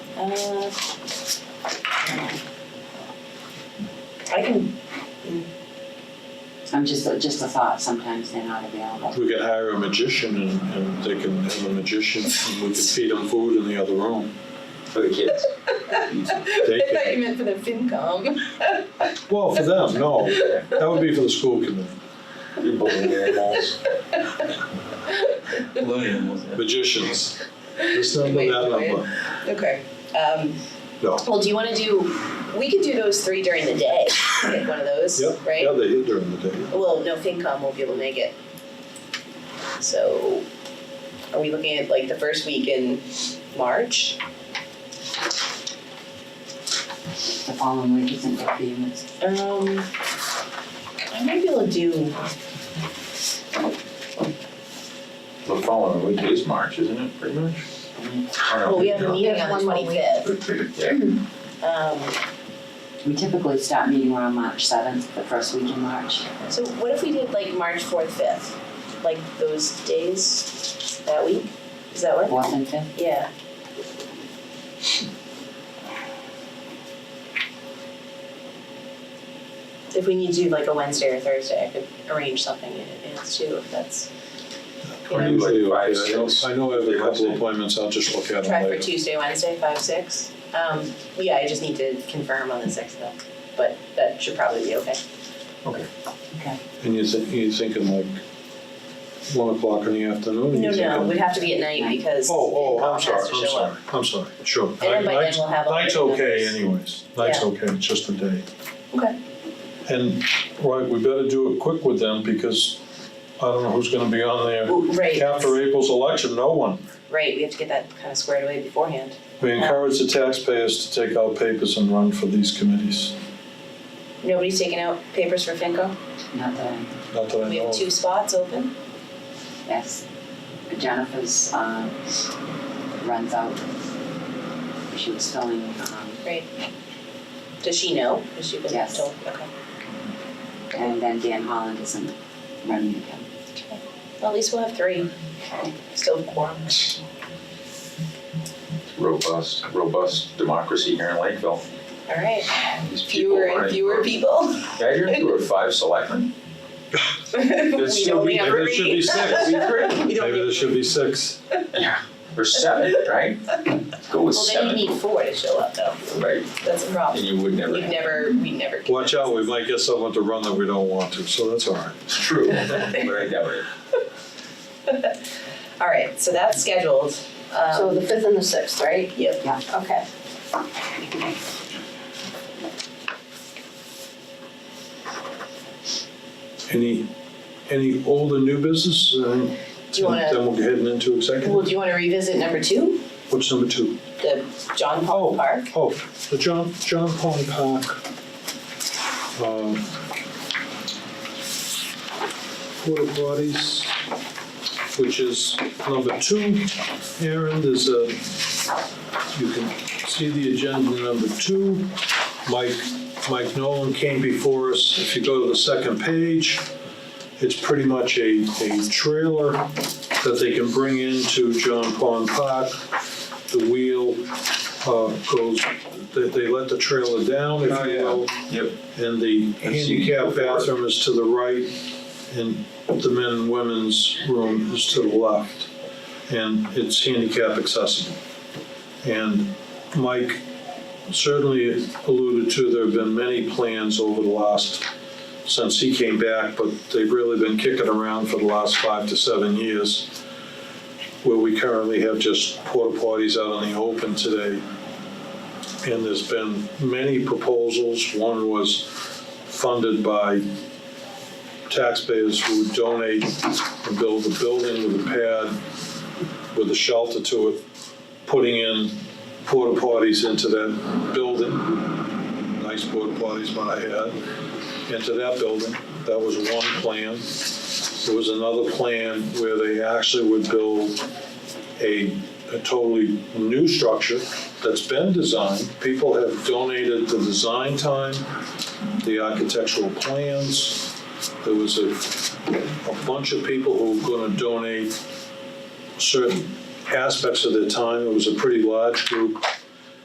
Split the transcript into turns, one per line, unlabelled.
Uh, I can, Mm.
I'm just, just a thought, sometimes they're not available.
We could hire a magician and, and they can have a magician and we could feed them food in the other room.
for the kids.
They
I thought
could,
you meant for the FinCom.
well, for them, no, that would be for the school committee.
You bowling animals.
Loading was it?
Magicians, this number,
Wait,
that
wait.
number,
Okay, um,
no.
well, do you wanna do, we could do those three during the day, like one of those,
Yep,
right?
yeah, they eat during the day.
Well, no, FinCom won't be able to make it. So, are we looking at like the first week in March?
The following week isn't good for you, it's
Um, I might be able to do,
The following week is March, isn't it, pretty much?
well, Oh, we have a meeting on the twenty-fifth.
Yeah.
Um,
We typically start meeting around March seventh, the first week in March.
so what if we did like March fourth, fifth, like those days that week? Does that work?
Fourth and fifth,
Yeah. If we need to do like a Wednesday or Thursday, I could arrange something in advance too, if that's, you
Or
know,
you like five,
I know,
six.
I know I have a couple appointments, I'll just look at them
try for
later.
Tuesday, Wednesday, five, six. Um, yeah, I just need to confirm on the sixth though, but that should probably be okay.
And you think, you thinking like one o'clock in the
No,
afternoon? You
no, it
thinking-
would have to be at night because
Oh, oh, I'm
FinCom
sorry,
has to
I'm
show up.
sorry, I'm sorry, sure.
And then by
Night-
then we'll have all
Night's
the
okay
numbers.
anyways, night's okay, it's just a day.
Okay.
And, right, we better do it quick with them because I don't know who's gonna be on there.
Ooh, Right.
After April's election, no one.
Right, we have to get that kind of squared away beforehand.
We encourage the taxpayers to take out papers and run for these committees,
Nobody's taking out papers for FinCom?
not the,
not that I
We
know
have
of.
two spots open?
yes. Jennifer's, um, runs out. She was filling, um,
Does she know? Has she been
Yes.
told? Okay.
and then Dan Holland isn't running again.
Well, at least we'll have three. Still quorum.
Robust, robust democracy here in Lakeville.
All right.
These people
Fewer and
running
fewer
for-
people.
Yeah, I hear there were five selectmen.
We
still
only
be-
have
there should
three.
be six.
We don't
Maybe
need-
there should be six.
Or seven, right? Go with
Well, then you
seven,
need four to show up though.
right?
That's a
And
problem.
you would never.
We've never, we never.
Watch out, we might get someone to run that we don't want to, so that's all right.
It's true, right, that way.
All right, so that's scheduled. Um,
So the fifth and the sixth, right?
Yep.
Yeah.
Okay.
Any, any old and new business? Uh,
Do you wanna,
Then we'll get heading into
well,
executive.
do you wanna revisit number two,
What's number two?
the John Paul
Oh.
Park?
Oh, the John, John Pond Park. um, Porta potties, which is number two. Aaron, there's a, you can see the agenda number two. Mike, Mike Nolan came before us. If you go to the second page, it's pretty much a, a trailer that they can bring into John Pond Park. The wheel, uh, goes, they, they let the trailer down, if
Oh,
you
yeah.
will.
Yep.
And the
I've seen
handicap
it before.
bathroom is to the right, and the men and women's room is to the left. And it's handicap accessible. And Mike certainly alluded to, there have been many plans over the last, since he came back, but they've really been kicking around for the last five to seven years, where we currently have just porta potties out in the open today. And there's been many proposals. One was funded by taxpayers who would donate and build a building with a pad with a shelter to it, putting in porta potties into that building. Nice porta potties might I add, into that building. That was one plan. There was another plan where they actually would build a, a totally new structure that's been designed. People have donated the design time, the architectural plans. There was a, a bunch of people who were gonna donate certain aspects of their time. It was a pretty large group.